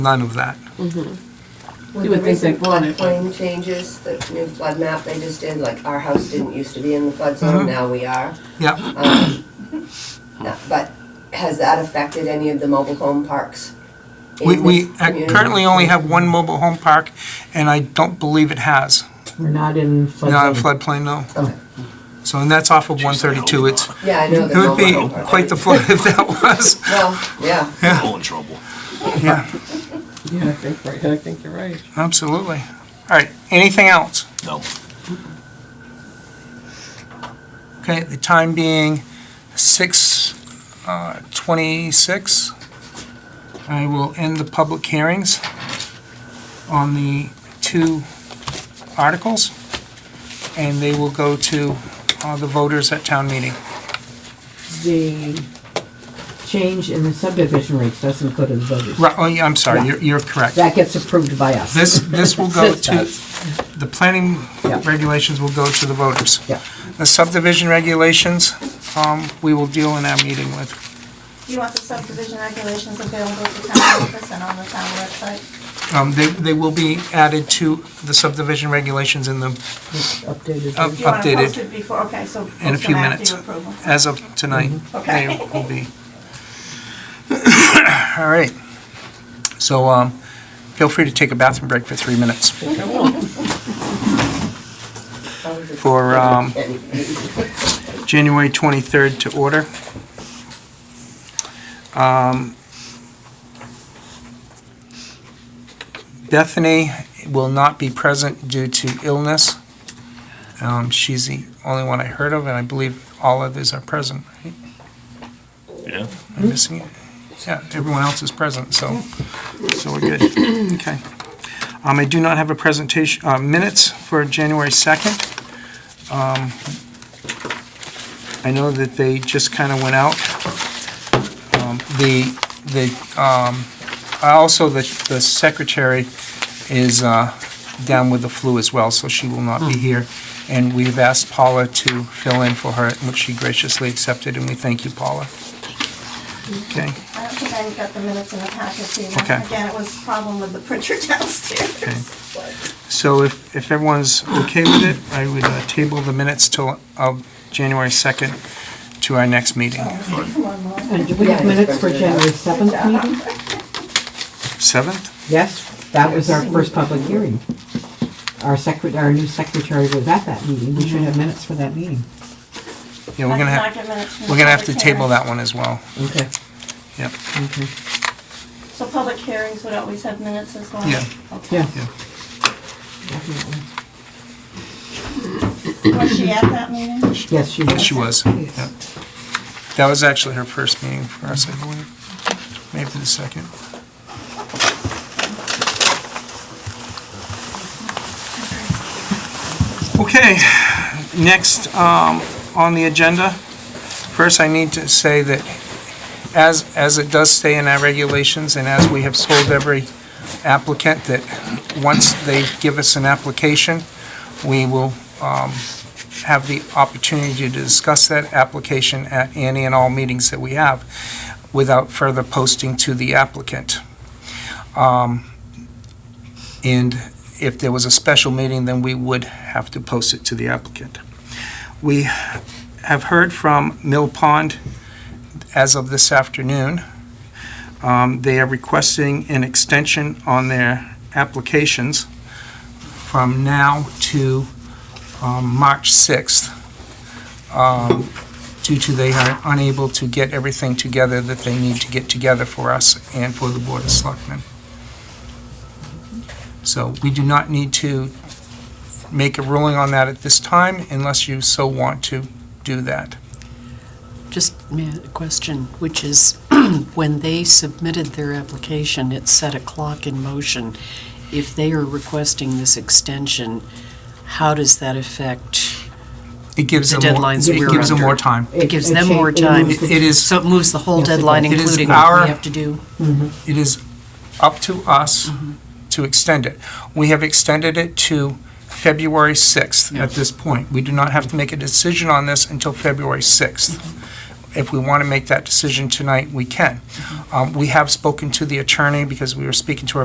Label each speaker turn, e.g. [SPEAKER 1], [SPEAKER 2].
[SPEAKER 1] none of that.
[SPEAKER 2] With
[SPEAKER 3] You
[SPEAKER 2] the
[SPEAKER 3] would think they'd
[SPEAKER 2] recent
[SPEAKER 3] want it, but-
[SPEAKER 2] floodplain changes, the new flood map they just did, like our house didn't used to be in the flood
[SPEAKER 1] Uh-huh.
[SPEAKER 2] zone, now we are. Um,
[SPEAKER 1] Yeah,
[SPEAKER 2] No, But has that affected any of the mobile home parks? in
[SPEAKER 1] we, we
[SPEAKER 2] this
[SPEAKER 1] uh,
[SPEAKER 2] community?
[SPEAKER 1] currently only have one mobile home park, and I don't believe it has.
[SPEAKER 3] We're not in flood.
[SPEAKER 1] Not in floodplain, no.
[SPEAKER 2] Okay.
[SPEAKER 1] So, and that's off of one thirty-two, it's,
[SPEAKER 2] Yeah, I know the
[SPEAKER 1] it would
[SPEAKER 2] mobile
[SPEAKER 1] be
[SPEAKER 2] home park.
[SPEAKER 1] quite the flood if that was,
[SPEAKER 2] Well, yeah,
[SPEAKER 4] all in trouble.
[SPEAKER 1] yeah,
[SPEAKER 3] Yeah, I think, right, I think you're right.
[SPEAKER 1] absolutely. All right, anything else?
[SPEAKER 4] No.
[SPEAKER 1] Okay, the time being six, uh, twenty-six. I will end the public hearings on the two articles, and they will go to, uh, the voters at town meeting.
[SPEAKER 3] The change in the subdivision rates doesn't go to the voters.
[SPEAKER 1] Right, oh, yeah, I'm sorry, you're, you're correct.
[SPEAKER 3] That gets approved by us.
[SPEAKER 1] This, this will go
[SPEAKER 3] This
[SPEAKER 1] to,
[SPEAKER 3] does.
[SPEAKER 1] the planning
[SPEAKER 3] Yeah.
[SPEAKER 1] regulations will go to the voters.
[SPEAKER 3] Yeah.
[SPEAKER 1] The subdivision regulations, um, we will deal in our meeting with.
[SPEAKER 5] You want the subdivision regulations available at the town office and on the town website?
[SPEAKER 1] Um, They, they will be added to the subdivision regulations in the,
[SPEAKER 3] Updated.
[SPEAKER 1] Uh,
[SPEAKER 3] version.
[SPEAKER 5] Do you want to
[SPEAKER 1] Updated
[SPEAKER 5] post it before, okay, so post
[SPEAKER 1] in a
[SPEAKER 5] them
[SPEAKER 1] few
[SPEAKER 5] after
[SPEAKER 1] minutes.
[SPEAKER 5] your approval.
[SPEAKER 1] As of tonight, they
[SPEAKER 5] Okay.
[SPEAKER 1] will be. All right. So um, feel free to take a bathroom break for three minutes
[SPEAKER 2] I was just-
[SPEAKER 1] for um,
[SPEAKER 2] Anyway.
[SPEAKER 1] January 23rd to order. Um, Bethany will not be present due to illness. Um, She's the only one I heard of, and I believe all others are present, right?
[SPEAKER 4] Yeah.
[SPEAKER 1] Am I missing it? Yeah, everyone else is present, so, so we're good. Okay. Um, I do not have a presentation, uh, minutes for January 2nd. I know that they just kind of went out. Um, The, the, um, also, the the secretary is uh, down with the flu as well, so she will not be here. And we've asked Paula to fill in for her, which she graciously accepted, and we thank you, Paula. Okay,
[SPEAKER 5] I don't think I got the minutes in the packet, so you know,
[SPEAKER 1] Okay.
[SPEAKER 5] again, it was a problem with the printer
[SPEAKER 1] Okay.
[SPEAKER 5] downstairs. So,
[SPEAKER 1] so if, if everyone's okay with it, I would uh, table the minutes till, of January 2nd to our next meeting.
[SPEAKER 5] Come on, Laura.
[SPEAKER 3] And do we have minutes for January 7th meeting?
[SPEAKER 1] 7th?
[SPEAKER 3] Yes, that was our first public hearing. Our secret, our new secretary was at that meeting. We should have minutes for that meeting.
[SPEAKER 1] Yeah, we're
[SPEAKER 5] I
[SPEAKER 1] gonna
[SPEAKER 5] did
[SPEAKER 1] have,
[SPEAKER 5] not get minutes from the
[SPEAKER 1] we're gonna have to
[SPEAKER 5] public
[SPEAKER 1] table
[SPEAKER 5] hearing.
[SPEAKER 1] that one as well.
[SPEAKER 3] Okay.
[SPEAKER 1] Yep.
[SPEAKER 3] Okay.
[SPEAKER 5] So public hearings would always have minutes as well?
[SPEAKER 1] Yeah.
[SPEAKER 5] Okay.
[SPEAKER 3] Yeah.
[SPEAKER 1] Yeah.
[SPEAKER 3] Definitely.
[SPEAKER 5] Was she at that meeting?
[SPEAKER 3] Yes, she
[SPEAKER 1] Yes,
[SPEAKER 3] was.
[SPEAKER 1] she was. yeah. That was actually her first meeting for us, I believe. Maybe the second. Okay, next um, on the agenda, first I need to say that as, as it does stay in our regulations and as we have told every applicant, that once they give us an application, we will um, have the opportunity to discuss that application at any and all meetings that we have without further posting to the applicant. Um, And if there was a special meeting, then we would have to post it to the applicant. We have heard from Mill Pond as of this afternoon. Um, They are requesting an extension on their applications from now to um, March 6th, um, due to they are unable to get everything together that they need to get together for us and for the Board of Selectmen. So we do not need to make a ruling on that at this time unless you so want to do that.
[SPEAKER 6] Just may I- a question, which is, when they submitted their application, it set a clock in motion. If they are requesting this extension, how does that affect,
[SPEAKER 1] It gives
[SPEAKER 6] The
[SPEAKER 1] them more-
[SPEAKER 6] deadlines that
[SPEAKER 1] It
[SPEAKER 6] we're
[SPEAKER 1] gives them
[SPEAKER 6] under.
[SPEAKER 1] more time.
[SPEAKER 6] it gives
[SPEAKER 3] it
[SPEAKER 6] them
[SPEAKER 3] cha-
[SPEAKER 6] more
[SPEAKER 3] it
[SPEAKER 6] time?
[SPEAKER 3] moves
[SPEAKER 1] It is-
[SPEAKER 6] So it moves the whole
[SPEAKER 3] Yes, it
[SPEAKER 6] deadline,
[SPEAKER 1] does. It is
[SPEAKER 6] including what
[SPEAKER 1] our-
[SPEAKER 6] we have to do?
[SPEAKER 1] It is up to us to extend it. We have extended it to February 6th at this point. We do not have to make a decision on this until February 6th. if we want to make that decision tonight, we can. Um, We have spoken to the attorney because we were speaking to our